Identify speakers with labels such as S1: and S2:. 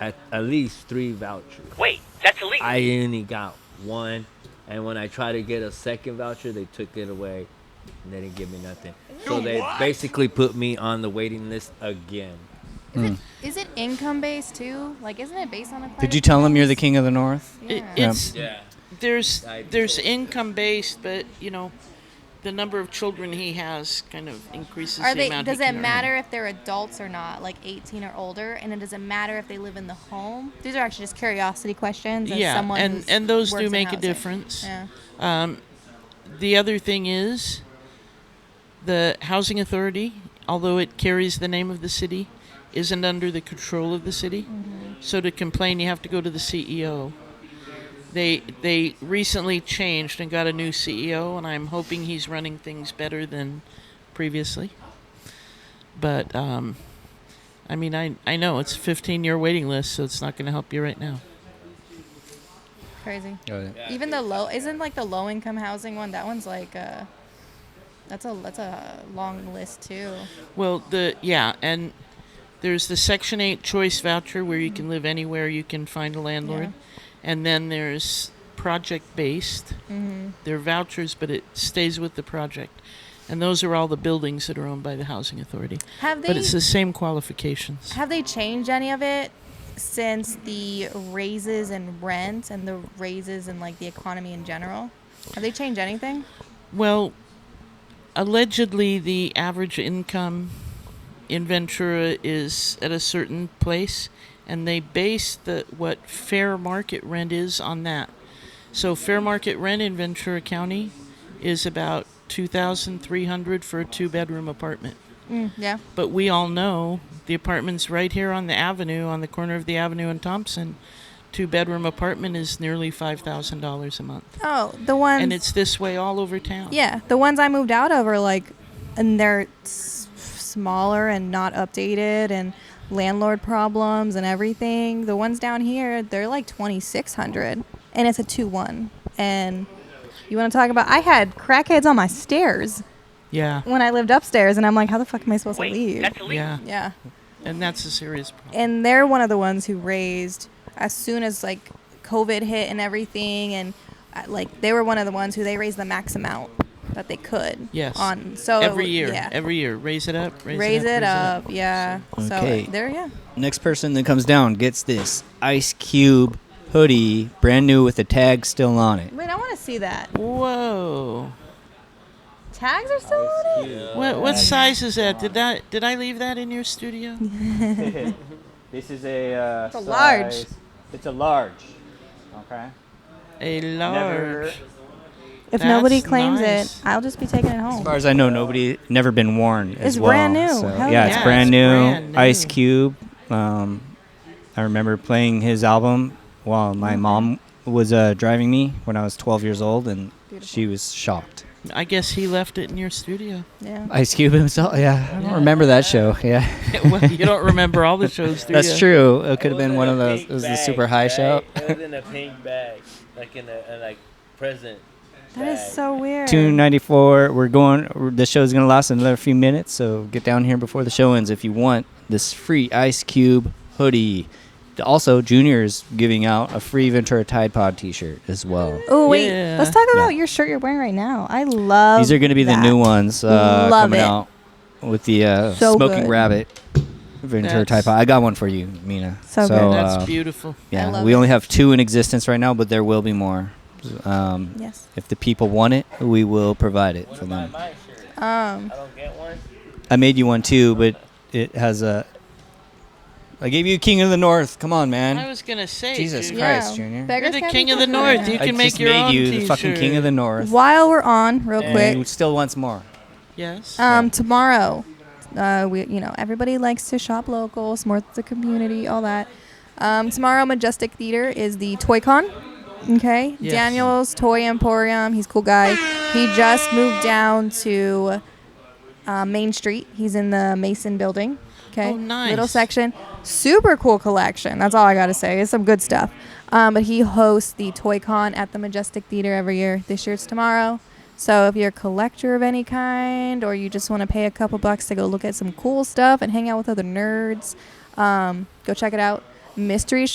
S1: at, at least three vouchers.
S2: Wait, that's illegal.
S1: I only got one, and when I tried to get a second voucher, they took it away. And they didn't give me nothing. So
S2: You
S1: they
S2: what?
S1: basically put me on the waiting list again.
S3: Is it income based too? Like, isn't it based on a?
S4: Mm. Did you tell him you're the king of the north?
S2: It,
S3: Yeah.
S2: it's
S1: Yeah.
S2: there's
S1: I-
S2: there's income based, but you know, the number of children he has kind of increases.
S3: Are
S2: the
S3: they?
S2: amount he
S3: Does it
S2: can earn.
S3: matter if they're adults or not, like 18 or older? And it doesn't matter if they live in the home. These are actually just curiosity questions. as
S2: Yeah,
S3: someone
S2: and
S3: who's
S2: and those
S3: works
S2: do
S3: in
S2: make a
S3: housing.
S2: difference.
S3: Yeah.
S2: The other thing is, the housing authority, although it carries the name of the city, isn't under the control of the city. So to complain, you have to go to the CEO. They they recently changed and got a new CEO, and I'm hoping he's running things better than previously. But um, I mean, I I know it's a 15 year waiting list, so it's not going to help you right now.
S3: Crazy.
S4: Yeah.
S3: Even the low isn't like the low income housing one. That one's like uh that's a that's a long list too.
S2: Well, the yeah, and there's the Section Eight choice voucher where you can live anywhere you can find a landlord, and then there's project based. They're vouchers, but it stays with the project, and those are all the buildings that are owned by the housing authority.
S3: Have
S2: but
S3: they-
S2: it's the same qualifications.
S3: Have they changed any of it since the raises in rent and the raises in like the economy in general? Have they changed anything?
S2: Well, allegedly, the average income in Ventura is at a certain place, and they base the what fair market rent is on that. So, fair market rent in Ventura County is about two thousand three hundred for a two-bedroom apartment.
S3: Yeah.
S2: But we all know the apartments right here on the avenue, on the corner of the avenue in Thompson, two-bedroom apartment is nearly five thousand dollars a month,
S3: Oh, the ones
S2: and it's this way all over town.
S3: yeah, the ones I moved out of are like and they're s- smaller and not updated and landlord problems and everything. The ones down here, they're like 2600 and it's a 2-1 and you want to talk about I had crackheads on my stairs
S2: Yeah.
S3: when I lived upstairs and I'm like how the fuck am I supposed to leave?
S2: Yeah,
S3: yeah.
S2: and that's a serious problem.
S3: and they're one of the ones who raised as soon as like COVID hit and everything, and uh, like they were one of the ones who they raised the max amount that they could.
S2: Yes.
S3: On so it
S2: every
S3: w-
S2: year,
S3: Oh, yeah.
S2: every year, raise it up, raise,
S3: raise
S2: it
S3: it
S2: up.
S3: up, yeah. So
S4: Okay.
S3: uh, there, yeah.
S4: Next person that comes down gets this Ice Cube hoodie, brand new with the tag still on it.
S3: Wait, I want to see that.
S2: Whoa!
S3: Tags are still on it.
S2: What what size is that? Did that did I leave that in your studio?
S5: This is a. Uh,
S3: It's a large.
S5: size- It's a large. Okay.
S2: A
S5: Never-
S2: large.
S3: If nobody
S2: That's
S3: claims
S2: nice.
S3: it, I'll just be taking it
S4: As
S3: home.
S4: far as I know, nobody never been worn. As
S3: It's
S4: well,
S3: brand new.
S4: so-
S3: Hell
S4: yeah, it's
S2: yeah.
S4: brand
S2: It's
S4: new.
S2: brand new.
S4: Ice Cube. Um, I remember playing his album while my mom was uh, driving me when I was 12 years old, and she was shocked.
S2: I guess he left it in your studio.
S3: Yeah.
S4: Ice Cube himself. Yeah, I don't remember that show. Yeah,
S2: well, you don't remember all the shows, do
S4: that's
S2: ya?
S4: true. It could have
S1: was
S4: been
S1: in
S4: one
S1: a
S4: of those. It
S1: pink
S4: was the
S1: bag,
S4: super high
S1: right?
S4: show.
S1: It was in a pink bag, like in a, a like present.
S3: That is
S1: bag.
S3: so weird.
S4: 294. We're going. we're- The show's gonna last another few minutes, so get down here before the show ends if you want this free Ice Cube hoodie. Also, Junior is giving out a free Ventura Tide Pod T-shirt as well.
S3: Oh wait,
S2: Yeah.
S3: let's talk
S4: Yeah.
S3: about your shirt you're wearing right now. I love.
S4: These are gonna be the
S3: that.
S4: new ones uh,
S3: Love
S4: coming
S3: it.
S4: out with the uh,
S3: So
S4: Smoking
S3: good.
S4: Rabbit Ventura Tide
S2: That's-
S4: Pod. I got one for you, Mina.
S3: So good.
S4: uh,
S2: That's beautiful.
S3: I
S4: Yeah,
S3: love
S4: we
S3: it.
S4: only have two in existence right now, but there will be more. Um,
S3: Yes.
S4: If the people want it, we will provide it for them.
S1: My shirt.
S3: Um.
S1: I don't get one.
S4: I made you one too, but it has a. I gave you King of the North. Come on,
S2: I
S4: man.
S2: was gonna say.
S4: Jesus
S2: dude.
S4: Christ. Junior.
S3: beggars
S2: You're the
S3: can't be
S2: king of the
S3: choosers.
S2: north. You
S4: I
S2: can make
S4: just
S2: your
S4: made
S2: own
S4: you the fucking King of the
S2: t-shirt.
S4: North.
S3: While we're on, real
S4: And
S3: quick,
S4: you still wants more.
S2: Yes.
S3: um, tomorrow, uh, we you know everybody likes to shop local, support the community, all that. Um, tomorrow, Majestic Theater is the Toy Con. Okay,
S2: Yes.
S3: Daniel's Toy Emporium. He's a cool guy. He just moved down to uh, Main Street. He's in the Mason Building. Okay,
S2: Oh, nice.
S3: little section. Super cool collection. That's all I gotta say. It's some good stuff. Um, but he hosts the Toy Con at the Majestic Theater every year. This year it's tomorrow. So if you're a collector of any kind, or you just want to pay a couple bucks to go look at some cool stuff and hang out with other nerds, um, go check it out. mystery